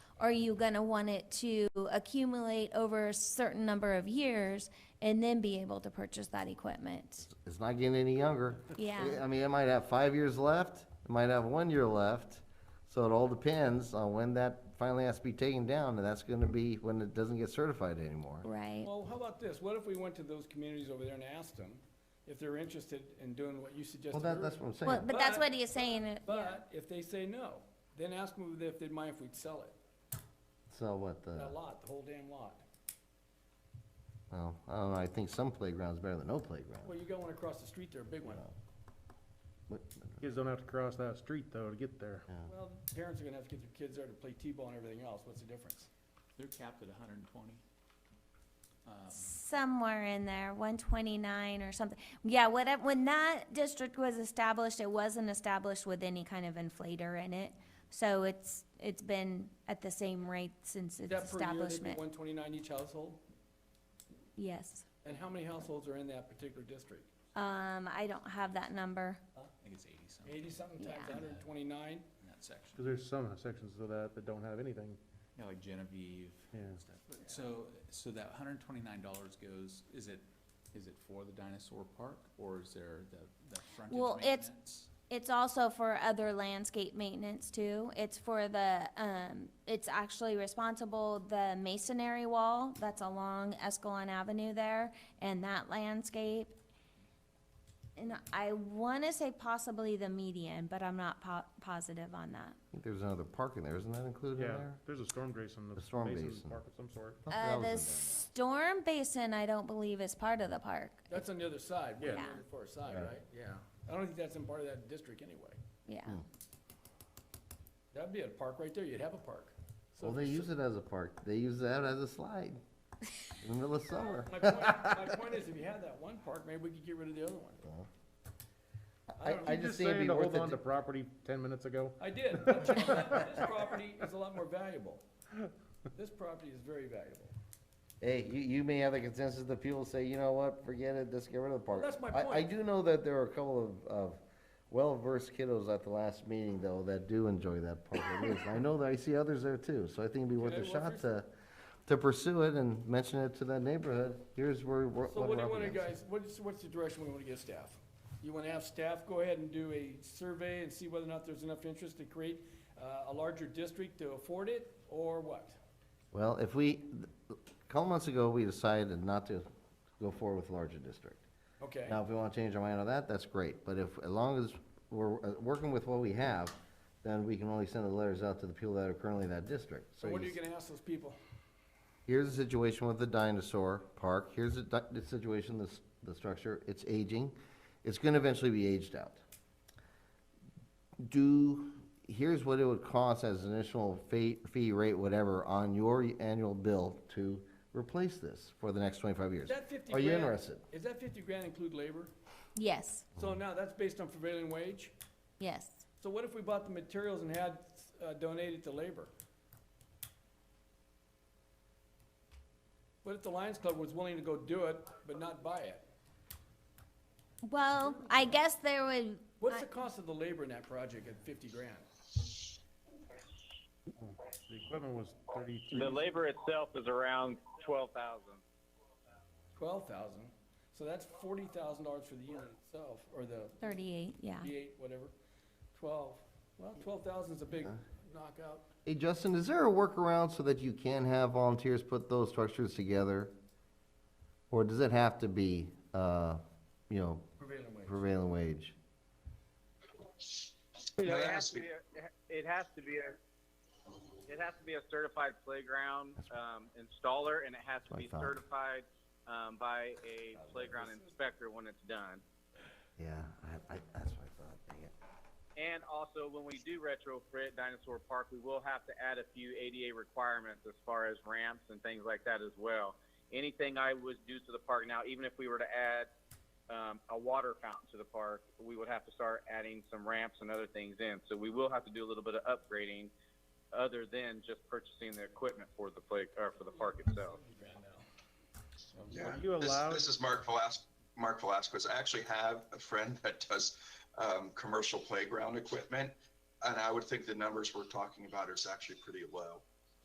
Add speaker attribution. Speaker 1: are you gonna want it to accumulate over a certain number of years and then be able to purchase that equipment?
Speaker 2: It's not getting any younger.
Speaker 1: Yeah.
Speaker 2: I mean, it might have five years left, it might have one year left, so it all depends on when that finally has to be taken down, and that's gonna be when it doesn't get certified anymore.
Speaker 1: Right,
Speaker 3: Well, how about this? What if we went to those communities over there and asked them if they're interested in doing what you suggested
Speaker 2: Well, that, that's
Speaker 3: earlier?
Speaker 2: what I'm
Speaker 1: well,
Speaker 2: saying.
Speaker 1: but that's what he is saying, uh, yeah.
Speaker 3: But if they say no, then ask them if they'd mind if we'd sell it,
Speaker 2: So what, the,
Speaker 3: that lot, the whole damn lot.
Speaker 2: well, I don't know, I think some playground's better than no playground.
Speaker 3: Well, you got one across the street there, a big one.
Speaker 2: But-
Speaker 4: Kids don't have to cross that street though to get there.
Speaker 3: Well, parents are gonna have to get their kids there to play T-ball and everything else. What's the difference?
Speaker 5: They're capped at hundred and twenty. Uh,
Speaker 1: Somewhere in there, one twenty-nine or something. Yeah, whatever, when that district was established, it wasn't established with any kind of inflator in it. So it's, it's been at the same rate since
Speaker 3: Is
Speaker 1: its
Speaker 3: that per year, they'd be
Speaker 1: establishment,
Speaker 3: one twenty-nine each household?
Speaker 1: yes.
Speaker 3: And how many households are in that particular district?
Speaker 1: Um, I don't have that number.
Speaker 5: I think it's eighty something
Speaker 3: Eighty-something times
Speaker 1: Yeah.
Speaker 3: hundred and twenty-nine?
Speaker 5: in that section.
Speaker 4: Cause there's some sections of that that don't have anything.
Speaker 5: Yeah, like Genevieve.
Speaker 4: Yeah.
Speaker 5: and stuff. So, so that hundred and twenty-nine dollars goes, is it, is it for the dinosaur park or is there the, the frontage
Speaker 1: Well, it's-
Speaker 5: maintenance?
Speaker 1: It's also for other landscape maintenance too. It's for the, um, it's actually responsible, the masonry wall that's along Escalon Avenue there and that landscape. And I wanna say possibly the median, but I'm not po- positive on that.
Speaker 2: I think there's another park in there, isn't that included in
Speaker 4: Yeah,
Speaker 2: there?
Speaker 4: there's a storm basin,
Speaker 2: A
Speaker 4: the
Speaker 2: storm
Speaker 4: basin
Speaker 2: basin.
Speaker 4: park of some sort.
Speaker 2: I thought that
Speaker 1: Uh,
Speaker 2: was in
Speaker 1: the
Speaker 2: there.
Speaker 1: storm basin, I don't believe is part of the park.
Speaker 3: That's on the other side, we're on the
Speaker 1: Yeah.
Speaker 3: other far side,
Speaker 2: Right.
Speaker 3: right? Yeah. I don't think that's in part of that district anyway.
Speaker 1: Yeah,
Speaker 2: Hmm.
Speaker 3: That'd be a park right there, you'd have a park. So-
Speaker 2: Well, they use it as a park, they use that as a slide in the middle of summer.
Speaker 3: My point, my point is, if you had that one park, maybe we could get rid of the other one. I
Speaker 2: I,
Speaker 3: don't
Speaker 2: I
Speaker 4: You
Speaker 2: just think it'd be
Speaker 4: saying to
Speaker 2: worth
Speaker 4: hold
Speaker 2: it.
Speaker 4: on
Speaker 2: to-
Speaker 4: to property ten minutes ago?
Speaker 3: I did, This property is a lot more valuable. This property is very valuable.
Speaker 2: Hey, you, you may have the consensus that people say, you know what, forget it, let's get rid of the park.
Speaker 3: That's my
Speaker 2: I, I
Speaker 3: point.
Speaker 2: do know that there are a couple of, of well-versed kiddos at the last meeting though, that do enjoy that park at least. I know that I see others there too, so I think it'd be worth
Speaker 3: Okay,
Speaker 2: a
Speaker 3: well,
Speaker 2: shot
Speaker 3: first-
Speaker 2: to, to pursue it and mention it to that neighborhood. Here's where, we're-
Speaker 3: So
Speaker 2: what
Speaker 3: what do
Speaker 2: we're
Speaker 3: you
Speaker 2: up
Speaker 3: wanna,
Speaker 2: against.
Speaker 3: guys, what's, what's the direction we wanna give staff? You wanna have staff go ahead and do a survey and see whether or not there's enough interest to create, uh, a larger district to afford it, or what?
Speaker 2: Well, if we, a couple months ago, we decided not to go forward with larger district.
Speaker 3: Okay,
Speaker 2: Now, if we wanna change our mind on that, that's great, but if, as long as we're uh, working with what we have, then we can only send the letters out to the people that are currently in that district.
Speaker 3: so what are you
Speaker 2: just-
Speaker 3: gonna ask those people?
Speaker 2: Here's the situation with the dinosaur park, here's the, di- the situation, the, s- the structure, it's aging, it's gonna eventually be aged out. Do, here's what it would cost as an initial fee, fee rate, whatever, on your annual bill to replace this for the next twenty-five years.
Speaker 3: Is that fifty
Speaker 2: Are
Speaker 3: grand?
Speaker 2: you interested? Mm-hmm.
Speaker 3: Is that fifty grand include labor?
Speaker 1: yes,
Speaker 3: So now, that's based on prevailing wage?
Speaker 1: yes.
Speaker 3: So what if we bought the materials and had uh, donated to labor? What if the Lions Club was willing to go do it, but not buy it?
Speaker 1: Well, I guess there would,
Speaker 3: What's
Speaker 1: I-
Speaker 3: the cost of the labor in that project at fifty grand?
Speaker 4: The equipment was thirty-three.
Speaker 6: The labor itself is around twelve thousand.
Speaker 3: Twelve thousand, so that's forty thousand dollars for the unit itself, or the
Speaker 1: thirty-eight, yeah.
Speaker 3: V8, whatever, twelve. Well, twelve thousand's a big knockout.
Speaker 2: Hey, Justin, is there a workaround so that you can have volunteers put those structures together? Or does it have to be, uh, you know,
Speaker 3: Prevailing wage.
Speaker 2: prevailing wage?
Speaker 6: It has to be, a- it has to be a, it has to be a certified playground, um, installer, and it has to
Speaker 2: what I
Speaker 6: be
Speaker 2: thought.
Speaker 6: certified, um, by a playground inspector when it's done.
Speaker 2: Yeah, I, I, that's what I thought, dang it.
Speaker 6: And also, when we do retrofit Dinosaur Park, we will have to add a few ADA requirements as far as ramps and things like that as well. Anything I would do to the park now, even if we were to add um, a water fountain to the park, we would have to start adding some ramps and other things in. So we will have to do a little bit of upgrading, other than just purchasing the equipment for the play or for the park itself.
Speaker 4: Are
Speaker 7: Yeah,
Speaker 4: you
Speaker 7: this,
Speaker 4: allowed-
Speaker 7: this is Mark Velas, Mark Velasquez. I actually have a friend that does um, commercial playground equipment, and I would think the numbers we're talking about is actually pretty low.